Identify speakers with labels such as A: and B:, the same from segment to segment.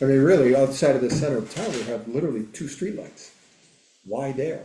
A: I mean, really, outside of the center of town, we have literally two streetlights. Why there?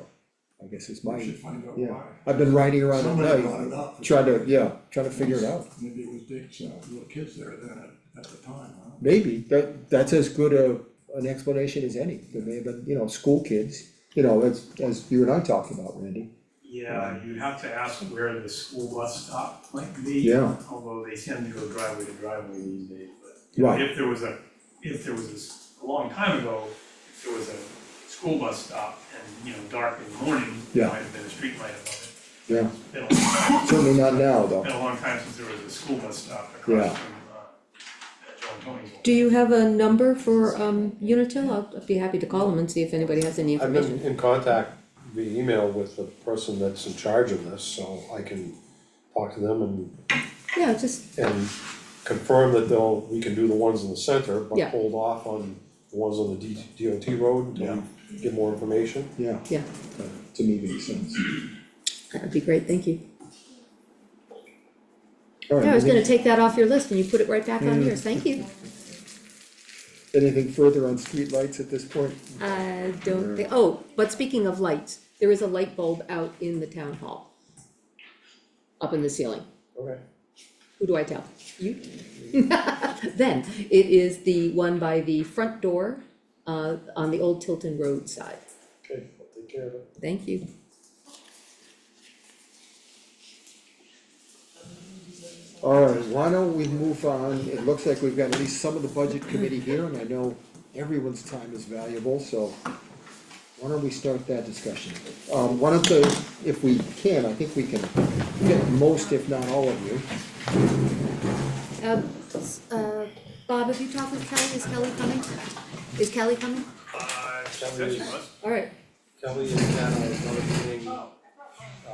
A: I guess is my,
B: We should find out
A: yeah,
B: why.
A: I've been riding around at
B: Somebody brought it
A: night,
B: up.
A: trying to, yeah, trying to figure it out.
B: Maybe it was Dick's, uh, little kids there then at, at the time, huh?
A: Maybe, that, that's as good a, an explanation as any, there may have been, you know, school kids, you know, as, as you and I talked about, Randy.
C: Yeah,
A: Mm.
C: you'd have to ask where the school bus stop might be.
A: Yeah.
C: Although they tend to go driveway to driveway these days, but.
A: Right.
C: If there was a, if there was, a s- a long time ago, if there was a school bus stop and, you know, dark in the morning, there
A: Yeah.
C: might have been a street light above
A: Yeah,
C: it. Been a long time,
A: certainly not now, though.
C: been a long time since there was a school bus stop across
A: Yeah.
C: from, uh, John Tony's.
D: Do you have a number for, um, Unitil? I'll I'd be happy to call them and see if anybody has any
E: I've
D: information.
E: been in contact via email with the person that's in charge of this, so I can talk to them and,
D: Yeah, just,
E: and confirm that they'll, we can do the ones in the center, but
D: Yeah.
E: hold off on the ones on the D, DOT road until we get more information.
A: Yeah,
D: yeah,
A: that to me makes sense.
D: that would be great, thank you.
A: All right,
D: Yeah, I was gonna
A: anything,
D: take that off your list and you put it right back on yours, thank you.
A: anything further on streetlights at this point?
D: I don't think, oh, but speaking of lights, there is a light bulb out in the town hall. Up in the ceiling.
E: Okay.
D: Who do I tell? You? Then, it is the one by the front door, uh, on the old Tilton Road side.
E: Okay, I'll take care of it.
D: Thank you.
A: All right, why don't we move on? It looks like we've got at least some of the budget committee here, and I know everyone's time is valuable, so why don't we start that discussion? Um, one of the, if we can, I think we can get most, if not all of you.
D: Um, s- uh, Bob, have you talked with Kelly? Is Kelly coming? Is Kelly coming?
C: Uh, she
E: That
C: said she
E: was-
C: was.
D: All right.
E: Kelly and Ken are another meeting, uh,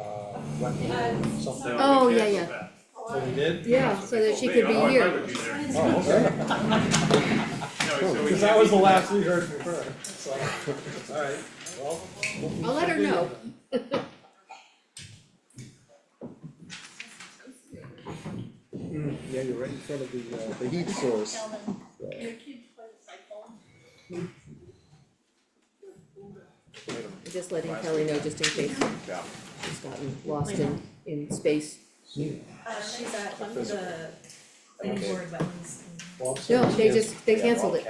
E: wetland, something.
D: Oh.
C: We
D: yeah,
C: canceled
D: yeah.
C: that.
E: Oh, we did?
D: Yeah, so that she could be
C: Otherwise, I
D: here.
C: would be there.
E: Oh, okay.
C: No, so we
E: Cause
C: can't
E: that was
C: be-
E: the last we heard from her, so, alright, well. we'll-
D: I'll let her know.
A: Yeah, you're right in front of the, uh, the heat source.
F: Your kids play the cycle.
D: Just letting Kelly know, just in case she's gotten lost in, in space.
F: Uh, she's at one of the planning board wetlands.
E: Well, I'm
D: No,
E: sorry.
D: they just, they canceled it.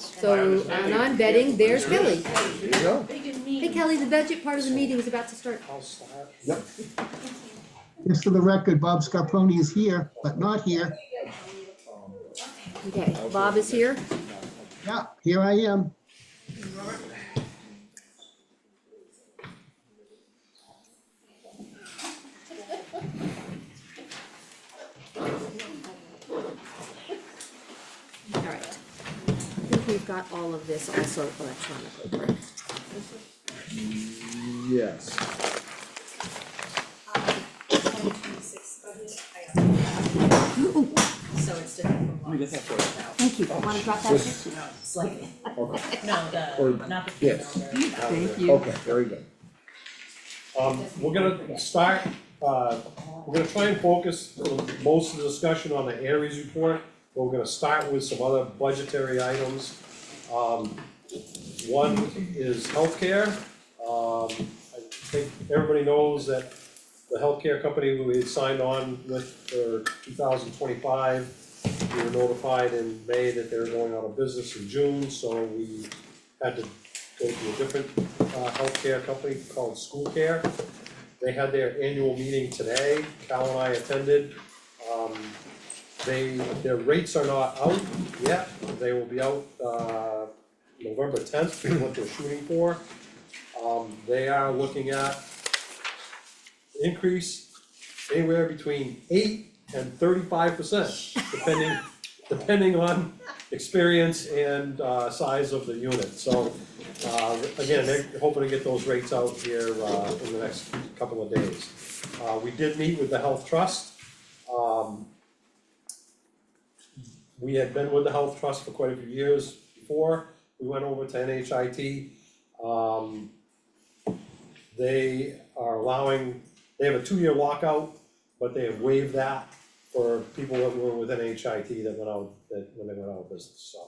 D: So, and I'm betting there's Kelly.
A: There you go.
F: Big and
D: Hey
F: mean.
D: Kelly, the budget part of the meeting is about to start.
E: I'll slap.
G: Just for the record, Bob Scarponi is here, but not here.
D: Okay, Bob is here.
G: Yeah, here I am.
D: All right. I think we've got all of this also electronically, correct?
A: Yes.
F: Uh, Twenty twenty-six budget, I don't have. So it's different from what.
D: Thank you. Wanna drop that?
A: This-
F: No, it's like,
A: Okay,
F: no,
A: Or-
F: the, not the.
A: yes.
F: female, the-
D: Thank you.
A: okay, very good.
E: Um, we're gonna start, uh, we're gonna try and focus the- most of the discussion on the Aries report. but We're gonna start with some other budgetary items. Um, one is healthcare. Um, I think everybody knows that the healthcare company we had signed on with for two thousand twenty-five, we were notified in May that they were going out of business in June, so we had to go to a different uh, healthcare company called School Care. They had their annual meeting today, Cal and I attended. Um, they, their rates are not out yet, they will be out, uh, November tenth, is what they're shooting for. Um, they are looking at increase anywhere between eight and thirty-five percent, depending, depending on experience and, uh, size of the unit, so. Uh, again, they're hoping to get those rates out here, uh, in the next couple of days. Uh, we did meet with the Health Trust, um. We had been with the Health Trust for quite a few years before, we went over to NHIT, um. They are allowing, they have a two-year lockout, but they have waived that for people that were with NHIT that went out, that, when they went out of business, so.